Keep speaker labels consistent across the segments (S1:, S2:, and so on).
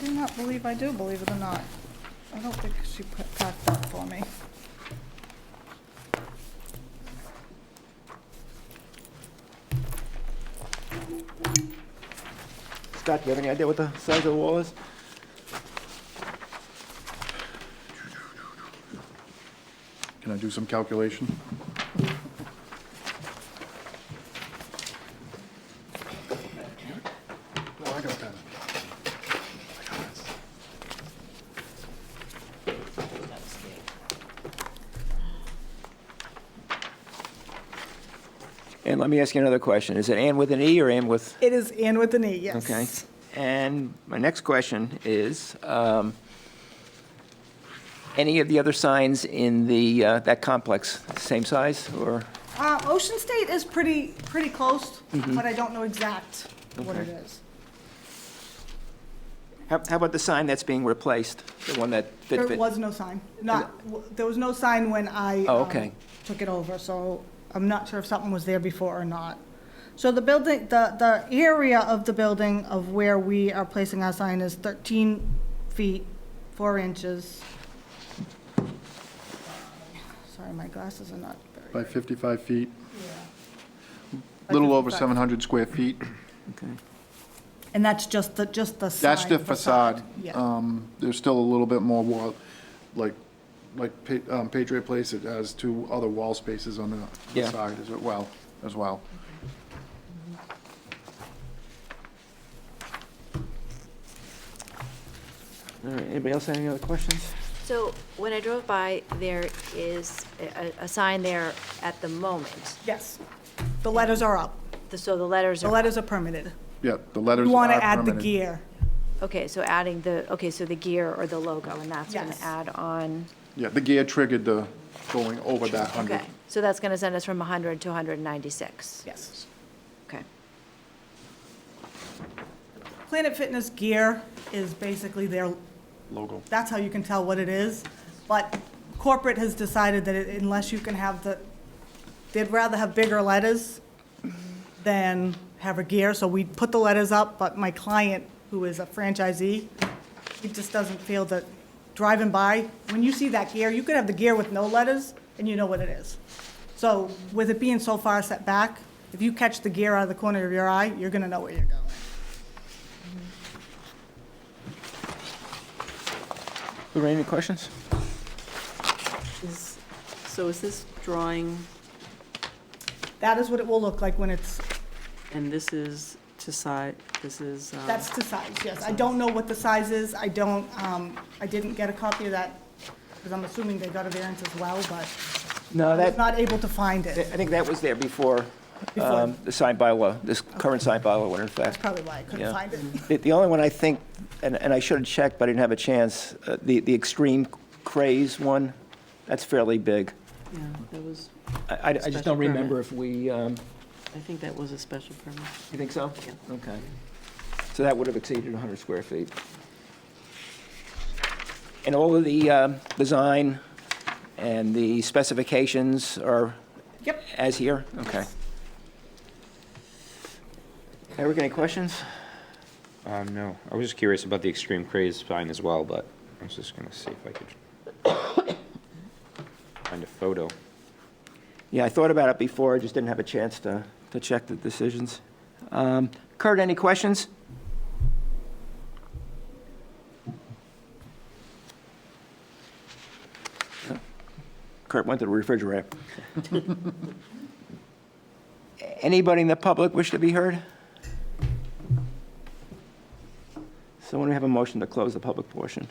S1: do not believe I do, believe it or not. I don't think she pa- packed that for me.
S2: Scott, do you have any idea what the size of the wall is?
S3: Can I do some calculation? No, I got a pen.
S2: And let me ask you another question. Is it Ann with an E or Ann with?
S1: It is in with an E, yes.
S2: Okay. And my next question is, um, any of the other signs in the, uh, that complex, same size or?
S1: Uh, Ocean State is pretty, pretty close, but I don't know exact what it
S2: Mm-hmm. Okay.
S1: is.
S2: How how about the sign that's being replaced, the one that fit?
S1: There
S2: fit-
S1: was no sign, not, w- there was no sign when I.
S2: Oh,
S1: um,
S2: okay.
S1: Took it over, so I'm not sure if something was there before or not. So the building, the, the area of the building of where we are placing our sign is 13 feet, 4 inches. Sorry, my glasses are not very.
S3: By 55 feet, little over 700 square feet.
S2: Okay.
S1: And that's just the, just the
S3: That's
S1: side
S3: the facade.
S1: Yeah,
S3: Um, There's still a little bit more wall, like, like Pa- um, Patriot Place, it has two other wall spaces on the- the
S2: Yeah.
S3: side as well, as well.
S2: All right, anybody else have any other questions?
S4: So when I drove by, there is a, a sign there at the moment.
S1: yes. The letters are up.
S4: The- So the letters
S1: The
S4: are,
S1: letters are permitted.
S3: Yeah, the letters
S1: You
S3: are
S1: want to add the
S3: permanent.
S1: gear.
S4: okay, so adding the, okay, so the gear or the logo, and that's going
S1: Yes.
S4: to add on,
S3: Yeah, the gear triggered the going over that 100.
S4: okay. So that's going to send us from 100 to 196?
S1: Yes.
S4: Okay.
S1: Planet Fitness gear is basically their,
S3: Logo.
S1: that's how you can tell what it is. But corporate has decided that it- unless you can have the, they'd rather have bigger letters than have a gear. So we put the letters up, but my client, who is a franchisee, he just doesn't feel that driving by, when you see that gear, you could have the gear with no letters and you know what it is. So with it being so far set back, if you catch the gear out of the corner of your eye, you're going to know where you're going.
S2: Lorraine, any questions?
S5: Is, so is this drawing,
S1: That is what it will look like when it's,
S5: and this is to side, this is, um,
S1: that's to size, yes. I don't know what the size is, I don't, um, I didn't get a copy of that, because I'm assuming they got a variance as well, but
S2: No,
S1: I was
S2: that,
S1: not able to find
S2: I
S1: it.
S2: think that was there before
S1: Before.
S2: um, the sign bylaw, this current sign bylaw went in
S1: That's
S2: effect.
S1: probably why I couldn't
S2: Yeah.
S1: find it.
S2: The, the only one I think, and, and I should have checked, but I didn't have a chance, uh, the, the extreme craze one, that's fairly big.
S5: yeah, that was,
S2: I- I, I just
S5: Special
S2: don't remember
S5: permit.
S2: if we, um,
S5: I think that was a special permit.
S2: you think so?
S5: Yeah.
S2: Okay. So that would have exceeded 100 square feet. And all of the um, design and the specifications are
S1: Yep.
S2: as here? Okay. Eric, any questions?
S6: Um, no, I was just curious about the extreme craze sign as well, but I was just gonna see if I could find a photo.
S2: Yeah, I thought about it before, I just didn't have a chance to, to check the decisions. Um, Kurt, any questions? Kurt went to the refrigerator. Anybody in the public wish to be heard? Someone have a motion to close the public portion?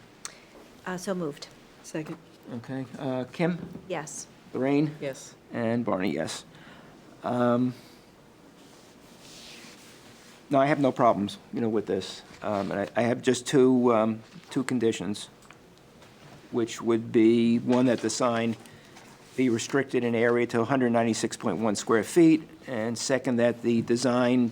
S4: Uh, So moved,
S5: Second,
S2: Okay, uh, Kim,
S4: yes.
S2: Lorraine?
S5: yes.
S2: And Barney, yes. Um, No, I have no problems, you know, with this. Um, And I- I have just two, um, two conditions, which would be, one, that the sign be restricted in area to 196.1 square feet, and second, that the design